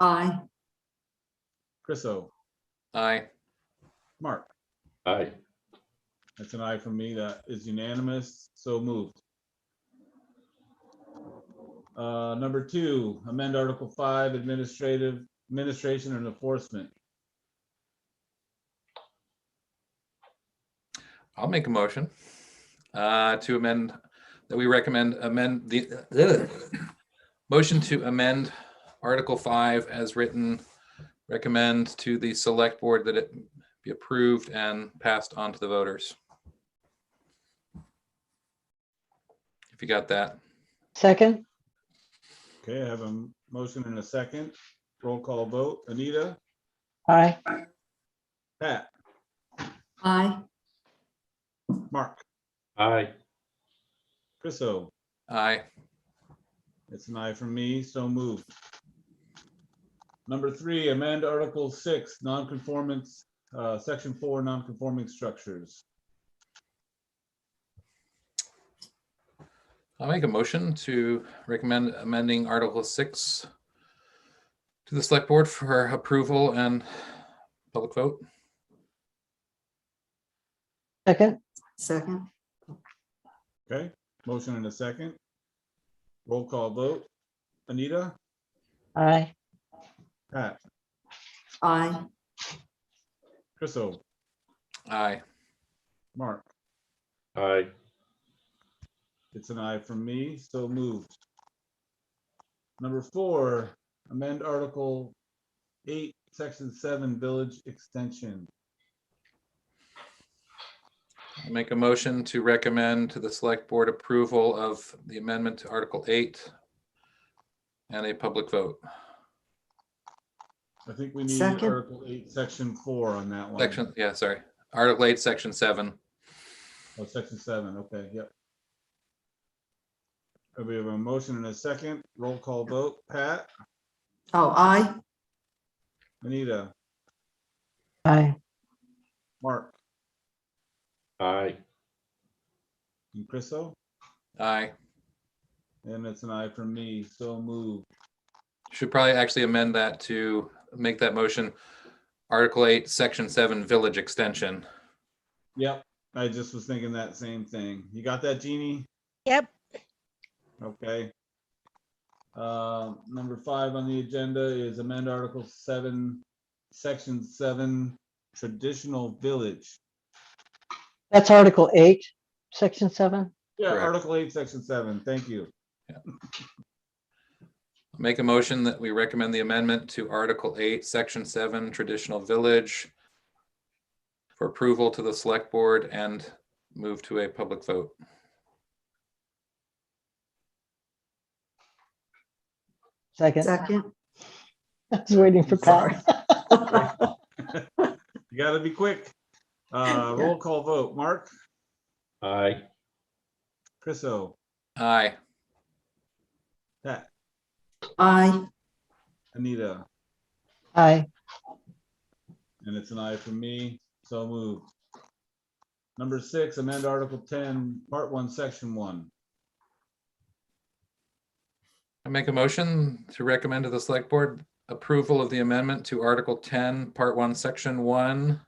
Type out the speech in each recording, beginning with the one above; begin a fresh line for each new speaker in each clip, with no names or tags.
Aye.
Chris O,
Aye.
Mark,
Aye.
that's an aye from me. That is unanimous. So moved. Uh, number two, amend Article five, administrative, administration and enforcement.
I'll make a motion uh, to amend, that we recommend amend the ugh. motion to amend Article 5 as written, recommend to the select board that it be approved and passed on to the voters. If you got that,
Second,
Okay, I have a m- motion and a second. Roll call vote. Anita,
aye.
Pat,
Aye.
Mark,
Aye.
Chris O,
aye.
It's an aye from me, so moved. Number three, amend Article six, nonconformance, uh, section four, nonconforming structures.
I'll make a motion to recommend amending Article 6 to the select board for approval and public vote.
Second,
Second.
Okay, motion and a second. Roll call vote. Anita,
aye.
Pat,
Aye.
Chris O,
Aye.
Mark.
Aye.
It's an aye from me, so moved. Number four, amend Article eight, Section seven, village extension.
I Make a motion to recommend to the select board approval of the amendment to Article eight and a public vote.
I think we need
Second.
Article eight, Section four on that one.
Section, yeah, sorry, Article eight, section seven.
Oh, section seven, okay, yep. Uh, We have a motion and a second, roll call vote, Pat,
Oh, aye.
Anita,
Aye.
Mark,
Aye.
and Chriso,
Aye.
and it's an aye from me, so moved.
Should probably actually amend that to make that motion. Article eight, section seven, village extension.
Yep, I just was thinking that same thing. You got that, Jeannie?
Yep.
Okay. Uh, number five on the agenda is amend Article seven, Section seven, traditional village.
That's Article eight, Section seven.
Yeah,
Correct.
Article eight, Section seven, thank you.
Make a motion that we recommend the amendment to Article eight, section seven, traditional village for approval to the select board and move to a public vote.
Second,
Second.
I was waiting for Pat.
You gotta be quick. Uh, roll call vote, Mark,
Aye.
Chris O,
Aye.
Pat,
Aye.
Anita,
Aye,
and it's an aye from me, so moved. Number six, amend Article ten, Part one, Section one.
I make a motion to recommend to the select board approval of the amendment to Article ten, Part one, Section one.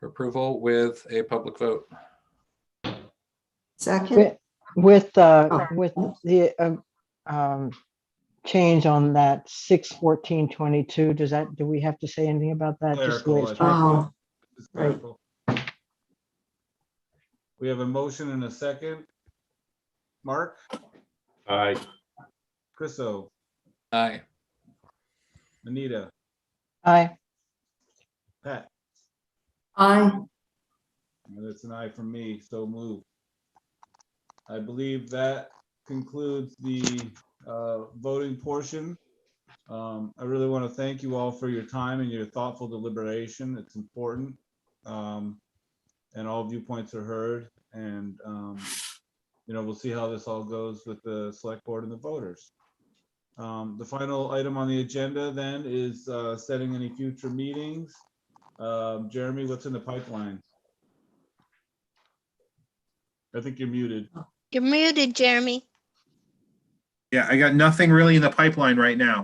For approval with a public vote.
Second.
Wi- with, uh,
Oh.
with the, um, um, change on that six fourteen twenty-two, does that, do we have to say anything about that? Just the way it's
Clerical, I
written?
Oh,
think. It's
Right.
clerical. We have a motion and a second. Mark,
Aye.
Chris O,
Aye.
Anita,
Aye,
Pat,
aye.
and it's an aye from me, so moved. I believe that concludes the uh, voting portion. Um, I really want to thank you all for your time and your thoughtful deliberation. It's important. Um, And all viewpoints are heard and, um, you know, we'll see how this all goes with the select board and the voters. Um, The final item on the agenda then is uh, setting any future meetings. Um, Jeremy, what's in the pipeline? I think you're muted.
You're muted, Jeremy.
Yeah, I got nothing really in the pipeline right now.